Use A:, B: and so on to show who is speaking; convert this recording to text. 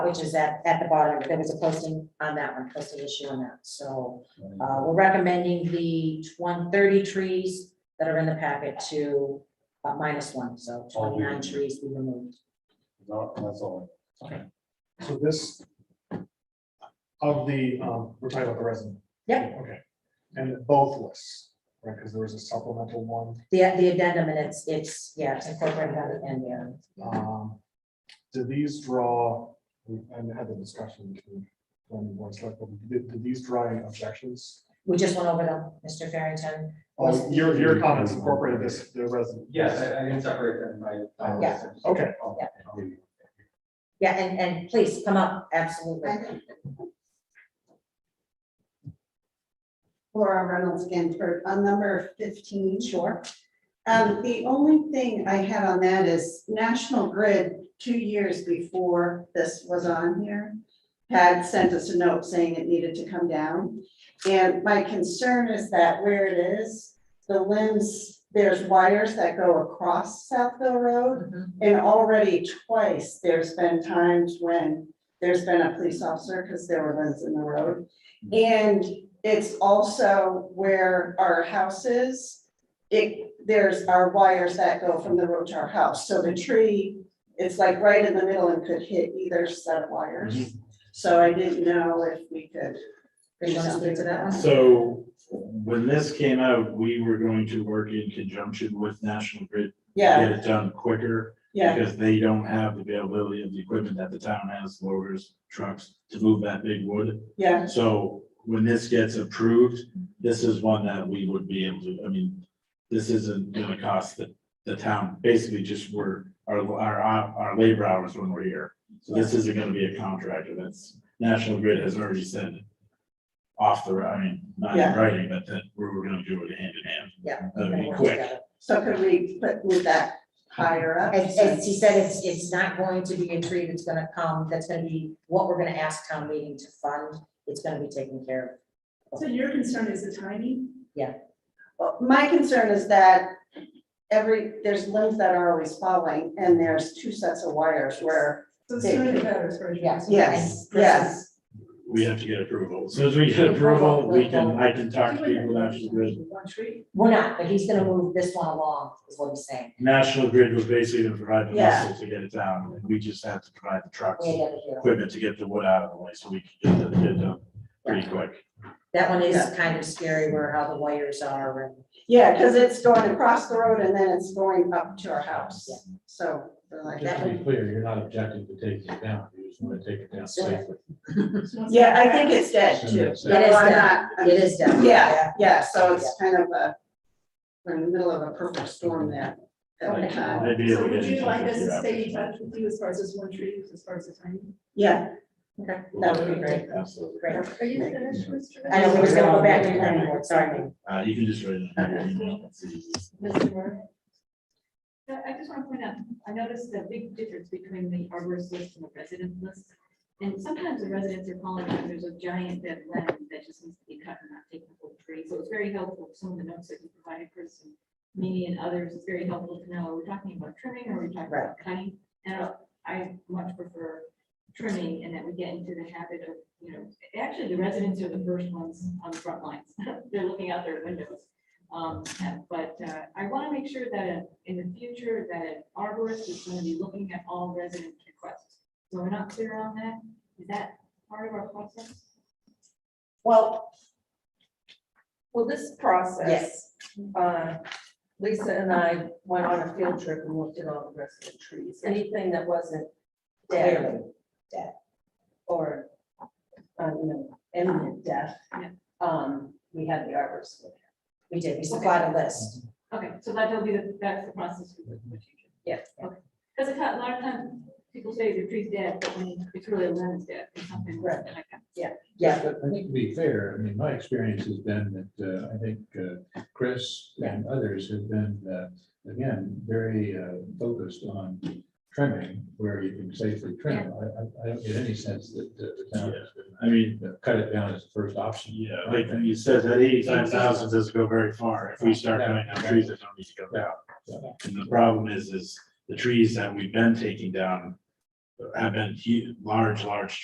A: which is at, at the bottom, there was a posting on that one, posting issue on that, so,
B: Um,
A: uh, we're recommending the one thirty trees that are in the packet to uh, minus one, so
C: Oh, we-
A: twenty-nine trees we removed.
C: No, that's all.
B: So this, of the, um, we're talking about the resume.
A: Yep.
B: Okay, and both lists, right, because there was a supplemental one,
A: The, the addendum, and it's, it's, yeah, it's incorporated on the end there.
B: um, do these draw, we I had the discussion between when we were select, but do, do these draw any objections?
A: We just went over them, Mr. Farrington.
B: Oh, your, your comments incorporated this, the resume.
D: Yes, I, I can separate them by. by-
A: Yeah.
B: Okay.
A: Yeah. Yeah, and, and please come up, absolutely.
E: Laura Reynolds Ginsburg, on number fifteen.
A: Sure.
E: Um, the only thing I had on that is National Grid, two years before this was on here, had sent us a note saying it needed to come down. And my concern is that where it is, the limbs, there's wires that go across Southville Road.
A: Mhm.
E: And already twice, there's been times when there's been a police officer, because there were ones in the road. And it's also where our house is. It, there's our wires that go from the road to our house, so the tree, it's like right in the middle and could hit either set of wires. So I didn't know if we could.
A: Do you want to speak to that one?
F: So when this came out, we were going to work in conjunction with National Grid. to
E: Yeah,
F: Get it done quicker
E: yeah,
F: because they don't have the availability of the equipment that the town has, loaders, trucks to move that big wood.
E: yeah,
F: So when this gets approved, this is one that we would be able to, I mean, this isn't gonna cost the, the town, basically just we're, our, our, our labor hours when we're here. So this isn't gonna be a contractor, that's, National Grid has already said off the, I mean, not in
E: Yeah.
F: writing, but that we we're gonna do it hand in hand.
A: Yeah.
F: That'd
A: We'll
F: be
A: work
F: quick.
A: together.
E: so could we put, move that higher up?
A: As, as he said, it's, it's not going to be a tree that's gonna come, that's gonna be what we're gonna ask town meeting to fund. It's gonna be taken care
G: So your concern is the timing?
E: Well, my concern is that every, there's limbs that are always falling and there's two sets of wires where,
G: So the sooner the better, as far as
A: of.
G: you're concerned.
A: Yes.
E: yes, yes.
F: We have to get approval. As Soon as we get approval, we can, I can talk to people, at National Grid.
G: One tree.
A: We're not, but he's gonna move this one along, is what he's saying.
F: National Grid was basically gonna provide the
E: Yeah.
F: muscle to get it down, and we just have to provide the trucks.
A: Way down here.
F: equipment to get the wood out of the way so we can get it done pretty quick.
A: That one is
E: Yeah.
A: kind of scary where how the wires are and
E: Yeah, because it's going across the road and then it's going up to our house, so they're like
C: Just
E: that.
C: to be clear, you're not objecting to taking it down, you just want to take it down safely.
E: Yeah, I think it's dead too.
C: It is
E: No, I'm
A: dead.
E: not-
A: it is definitely.
E: Yeah, yeah, so it's kind of a, we're in the middle of a perfect storm there. uh, at the
G: Okay.
E: time.
F: They'd be able
G: So
F: to get
G: would
F: it
G: you like
F: done
G: us to stay in
F: fifty hours.
G: touch with you as far as this one tree, as far as the timing?
E: Yeah, that would be great.
F: Absolutely.
A: Great.
G: Are you finished, Mr.
A: I know, we're just gonna go back to the planning board, sorry.
F: Uh, you can just write it in your email. It's easy.
G: Mr. Moore? I just want to point out, I noticed a big difference between the arborist list and the resident list. And sometimes the residents are calling, and there's a giant dead limb that just needs to be cut and not take the whole tree. So it's very helpful, some of the notes that you provided, Chris, and me and others, it's very helpful to know, are we talking about trimming or are we talking about cutting? And I much prefer trimming and that we get into the habit of, you know, actually, the residents are the first ones on the front lines. They're looking out their windows. Um, but, uh, I want to make sure that in the future, that an arborist is going to be looking at all resident requests. So we're not clear on that. Is that part of our process?
H: Well, well, this process,
A: Yes,
H: uh, Lisa and I went on a field trip and looked at all the rest of the trees, anything that wasn't dead
A: clearly.
H: or, uh, you know, imminent death.
G: Yeah.
H: Um, we had the arborist. look
A: We did, we supplied a list.
G: Okay, so that'll be, the that's the process for the for the future.
H: Yeah.
G: Because a lot- a lot of times, people say the tree's dead, but when it's really a limb's dead, it's something
A: Right.
G: like that.
A: Yeah.
C: But I think to be fair, I mean, my experience has been that, uh, I think, uh, Chris and others have been, uh, again, very, uh, focused on trimming where you can safely trim. I, I, I don't get any sense that uh, the town has
F: I mean,
C: been, uh, cut it down as the first option.
F: yeah, like you said, that eighty-five thousand doesn't go very far. If we start cutting down trees that don't need to go down. And the problem is, is the trees that we've been taking down have been huge, large, large